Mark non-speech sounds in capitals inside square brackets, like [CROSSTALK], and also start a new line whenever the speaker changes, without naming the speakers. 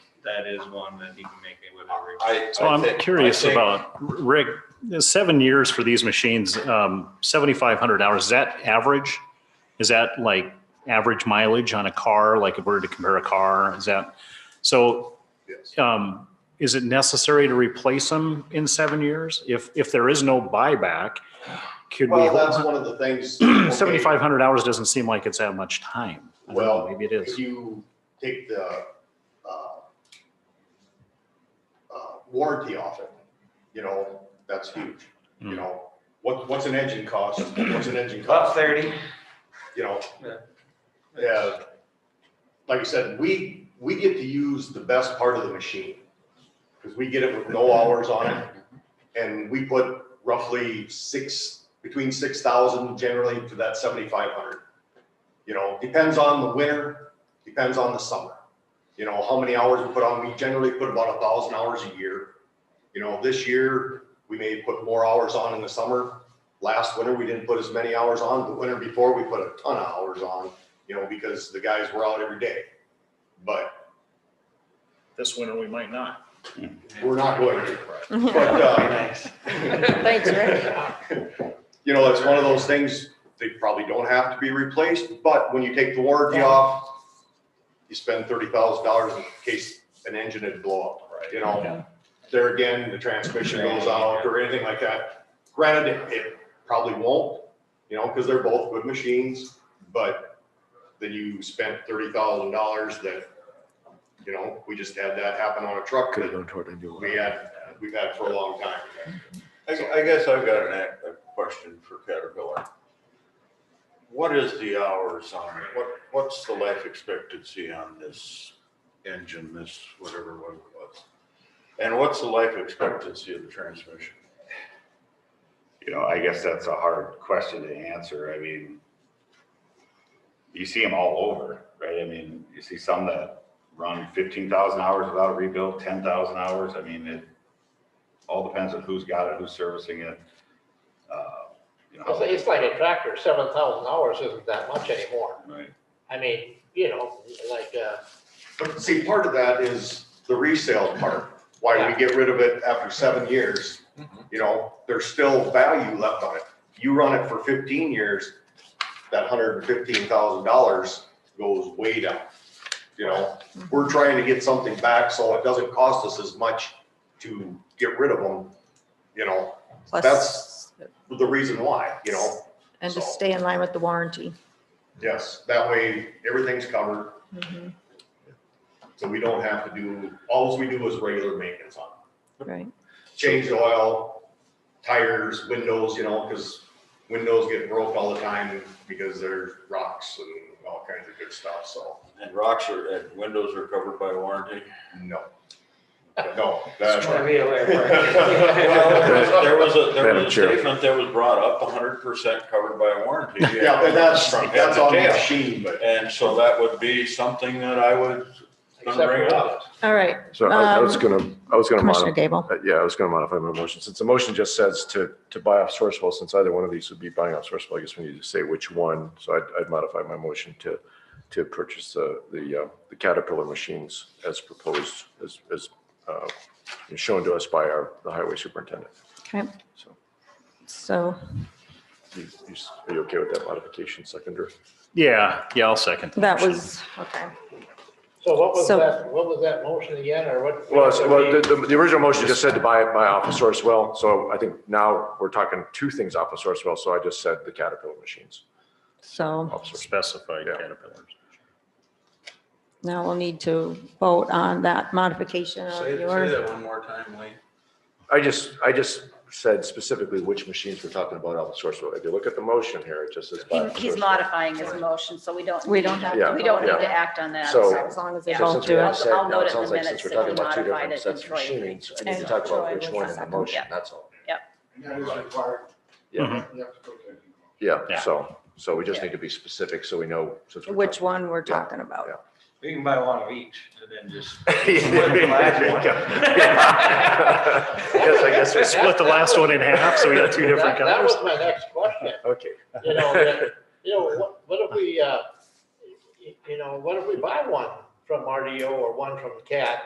that is one that he can make me with every.
I.
So
I
I'm
think-
curious
I think-
about, Rick, seven years for these machines, um, 7,500 hours, is that average? Is that like average mileage on a car? Like if we were to compare a car, is that, so
Yes.
um, is it necessary to replace them in seven years? If, if there is no buyback, could we?
Well, that's one of the things.
[CLEARS THROAT] Seventy-five hundred hours doesn't seem like it's that much time. I don't know,
Well,
Maybe it is.
If you take the uh, uh, warranty off it, you know, that's huge. You
Hmm.
know, what, what's an engine cost? What's an engine
About
cost?
thirty.
You know?
Yeah.
Yeah. Like I said, we, we get to use the best part of the machine. Because we get it with no hours on it. And we put roughly six, between six thousand generally to that seventy-five hundred. You know, depends on the winter, depends on the summer. You know, how many hours we put on, we generally put about a thousand hours a year. You know, this year, we may put more hours on in the summer. Last winter, we didn't put as many hours on, the winter before, we put a ton of hours on, you know, because the guys were out every day. But
This winter, we might not.
we're not going to, but,
Thanks,
uh,
Rick.
[LAUGHS] You know, it's one of those things, they probably don't have to be replaced, but when you take the warranty off, you spend thirty thousand dollars in case an engine would blow up, you know? There again, the transmission goes out or anything like that. Granted, it- it probably won't, you know, because they're both good machines, but then you spent thirty thousand dollars that, you know, we just had that happen on a truck
Could have
that
gone toward a new one.
we had, we've had for a long time.
I, gu- I guess I've got an, act- a question for Caterpillar. What is the hours on, it? what, what's the life expectancy on this engine, this whatever one it was? And what's the life expectancy of the transmission?
You know, I guess that's a hard question to answer. I mean, you see them all over, right? I mean, you see some that run fifteen thousand hours without a rebuild, ten thousand hours. I mean, it all depends on who's got it, who's servicing it. uh, You know,
It's, it's like a tractor, seven thousand hours isn't that much anymore.
Right.
I mean, you know, like, uh,
But see, part of that is the resale part, why we get rid of it after seven years. You know, there's still value left on it. You run it for fifteen years, that hundred and fifteen thousand dollars goes way down. You know, we're trying to get something back so it doesn't cost us as much to get rid of them, you know,
Plus,
That's- the reason why, you know?
and to stay in line with the warranty.
Yes, that way everything's covered.
Mhm.
So we don't have to do, alls we do is regular maintenance on it.
Right.
Change the oil, tires, windows, you know, because windows get broke all the time because there's rocks and all kinds of good stuff, so
And rocks are, and windows are covered by warranty?
no. No.
Just trying to be aware,
[LAUGHS]
Well,
right?
[LAUGHS] There was a, there
Madam
was a
Chair.
statement that was brought up, hundred percent covered by warranty.
Yeah, but that's,
From head
that's
to
on the
tail.
machine, but
And so that would be something that I would bring
Except for-
up.
All right,
So I I was
Um,
gonna, I was gonna
Commissioner
modify, uh,
Gable.
yeah, I was gonna modify my motion. Since the motion just says to, to buy off Sourcewell, since either one of these would be buying off Sourcewell, I guess we need to say which one. So I'd, I'd modify my motion to, to purchase the, the, uh, the Caterpillar machines as proposed, as, as, uh, shown to us by our, the highway superintendent.
Okay,
So
so
you, you s- are you okay with that modification, seconder?
Yeah, yeah, I'll second.
that was, okay.
so what was
So-
that, what was that motion again, or what?
Well, it's- well, the, the, the original motion just said to buy it by off of Sourcewell, so I think now we're talking two things off of Sourcewell, so I just said the Caterpillar machines.
So
off Sourcewell.
Specified
Yeah.
Caterpillars.
now we'll need to vote on that modification of
Say, say
yours.
that one more time, Lee.
I just, I just said specifically which machines we're talking about off of Sourcewell. If you look at the motion here, it just says. buy off
He-
of
He's
Sourcewell.
modifying his motion, so we don't.
We don't
need-
have
to-
We don't need
Yeah.
to act on that.
So-
As long as they
Yeah.
So
both
since
do
we
I'll-
have
it.
said,
I'll
now
note
it
it in
sounds
the
like since
minutes
we're
that
talking
we
about two
modified
different
it in
sets of
Troy.
machines, I need to
And
talk
Troy
about which
was
one in the
second.
motion,
Yeah.
that's all.
That is required,
Yeah,
you have to go there.
yeah,
Yeah.
so, so we just
Yeah.
need to be specific, so we know. since we're
Which
talking-
one we're talking about.
Yeah.
We can buy one of each and then [LAUGHS] just.
[LAUGHS] Yes, I guess we
Split the last one in half, so we got two different
[LAUGHS] That, that
colors.
was my next question,
[LAUGHS] Okay.
you know, that- you know, what, what if we, uh, y- you know, what if we buy one from RDO or one from CAT